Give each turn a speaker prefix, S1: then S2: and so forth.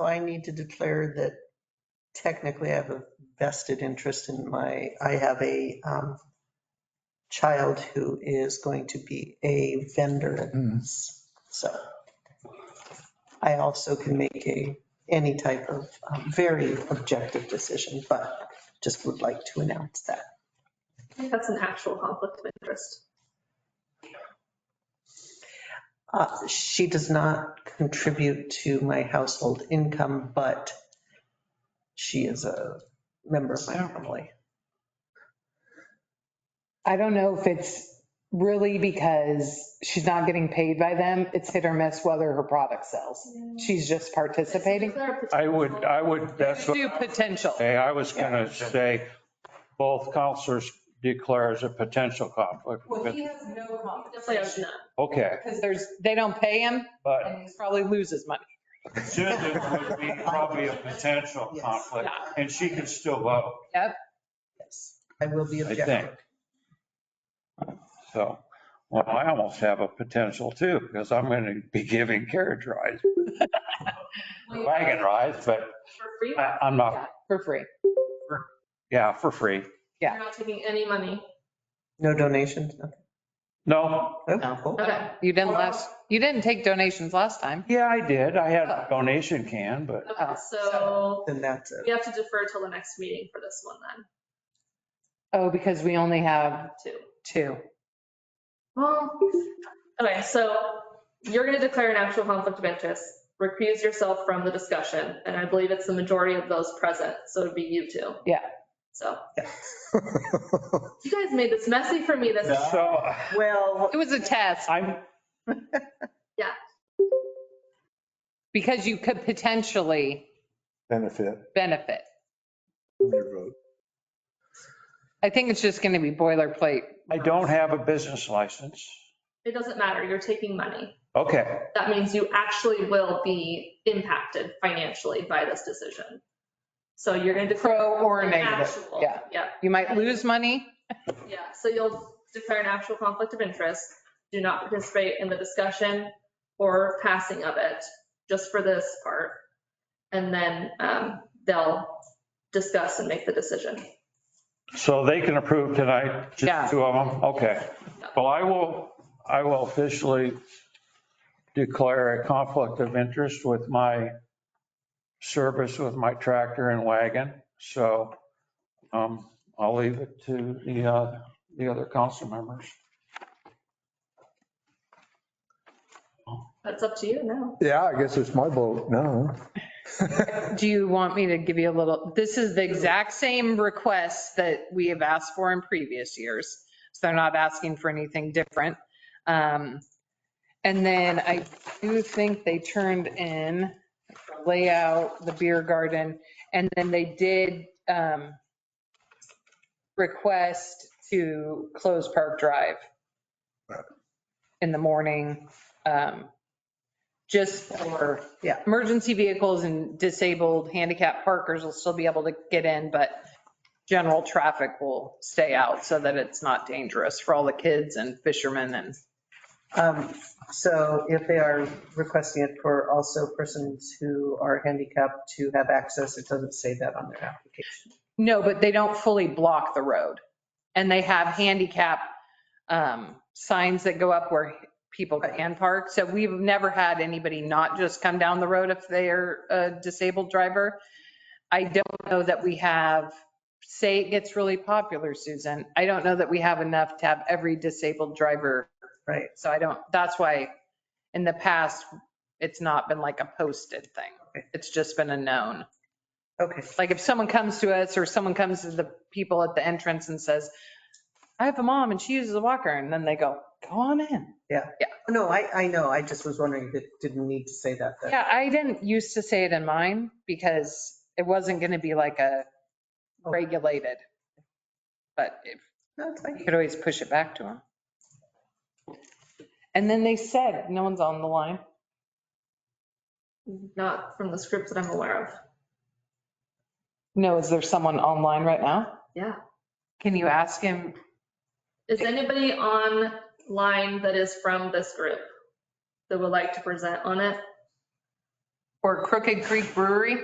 S1: So I need to declare that technically I have a vested interest in my, I have a um, child who is going to be a vendor at this. So I also can make a, any type of um, very objective decision, but just would like to announce that.
S2: I think That's an actual conflict of interest.
S1: Uh, She does not contribute to my household income, but she is a member of my family.
S3: I don't know if it's really because she's not getting paid by them. It's hit or miss whether her product sells. She's just participating.
S4: I would, I would, that's what,
S3: Do potential.
S4: hey, I was gonna say, both counselors declare as a potential conflict.
S5: Well, he has no
S4: uh,
S2: Definitely does
S5: compensation
S2: not.
S4: Okay,
S3: Because there's, they don't pay him
S4: but
S3: and he probably loses money.
S4: Susan would be probably a potential
S1: Yes.
S4: conflict, and she could still vote,
S1: Yes, I will be
S4: I think.
S1: objective.
S4: So, well, I almost have a potential too, because I'm gonna be giving carriage rides, wagon rides, but
S2: For free,
S4: I- I'm not,
S3: Yeah, For free.
S4: yeah, for free.
S3: Yeah.
S2: you're not taking any money.
S1: No donations, nothing.
S4: No,
S1: Oh, cool.
S2: Okay,
S3: You didn't last, you didn't take donations last time.
S4: yeah, I did. I had a donation can, but
S3: oh,
S2: okay, so
S1: Then that's it.
S2: we have to defer till the next meeting for this one then,
S3: Oh, because we only have
S2: too.
S3: two.
S2: Well, okay, so you're gonna declare an actual conflict of interest, recuse yourself from the discussion, and I believe it's the majority of those present, so it'd be you two.
S3: Yeah.
S2: So. You guys made this messy for me this.
S4: so
S1: Well,
S3: It was a test
S4: I'm,
S3: because you could potentially
S6: benefit
S3: benefit.
S6: from your vote.
S3: I think it's just going to be boilerplate.
S4: I don't have a business license.
S2: It doesn't matter, you're taking money.
S4: Okay,
S2: That means you actually will be impacted financially by this decision. So you're gonna declare.
S3: Pro or
S2: an
S3: negative,
S2: actual-
S3: yeah.
S2: Yeah,
S3: You might lose money.
S2: yeah, so you'll declare an actual conflict of interest, do not participate in the discussion or passing of it, just for this part. And then um, they'll discuss and make the decision.
S4: so they can approve tonight,
S3: Yeah.
S4: just two of them? Okay. Well, I will, I will officially declare a conflict of interest with my service with my tractor and wagon. So um, I'll leave it to the, uh, the other council members.
S2: That's up to you now.
S6: Yeah, I guess it's my vote now.
S3: Do you want me to give you a little, this is the exact same request that we have asked for in previous years. So they're not asking for anything different. Um, And then I do think they turned in the layout, the beer garden, and then they did um, request to close Park Drive in the morning, um, just for
S1: Yeah.
S3: emergency vehicles and disabled handicap parkers will still be able to get in, but general traffic will stay out so that it's not dangerous for all the kids and fishermen and
S1: um, so if they are requesting it for also persons who are handicapped to have access, it doesn't say that on their application.
S3: No, but they don't fully block the road. And they have handicap um, signs that go up where people can park. So we've never had anybody not just come down the road if they're a disabled driver. I don't know that we have, say it gets really popular, Susan. I don't know that we have enough to have every disabled driver.
S1: Right.
S3: So I don't, that's why in the past, it's not been like a posted thing.
S1: Okay.
S3: It's just been a known.
S1: Okay,
S3: Like if someone comes to us or someone comes to the people at the entrance and says, I have a mom and she uses a walker, and then they go, go on in.
S1: no, I, I know, I just was wondering if it didn't need to say that. that-
S3: Yeah, I didn't used to say it in mine because it wasn't going to be like a Oh. regulated. But if
S1: No, it's
S3: you
S1: fine.
S3: could always push it back to them. And then they said, no one's on the line.
S2: Not from the script that I'm aware of.
S3: No, is there someone online right now?
S2: Yeah.
S3: Can you ask him?
S2: Is anybody online that is from this group that would like to present on it?
S3: or Crooked Creek Brewery.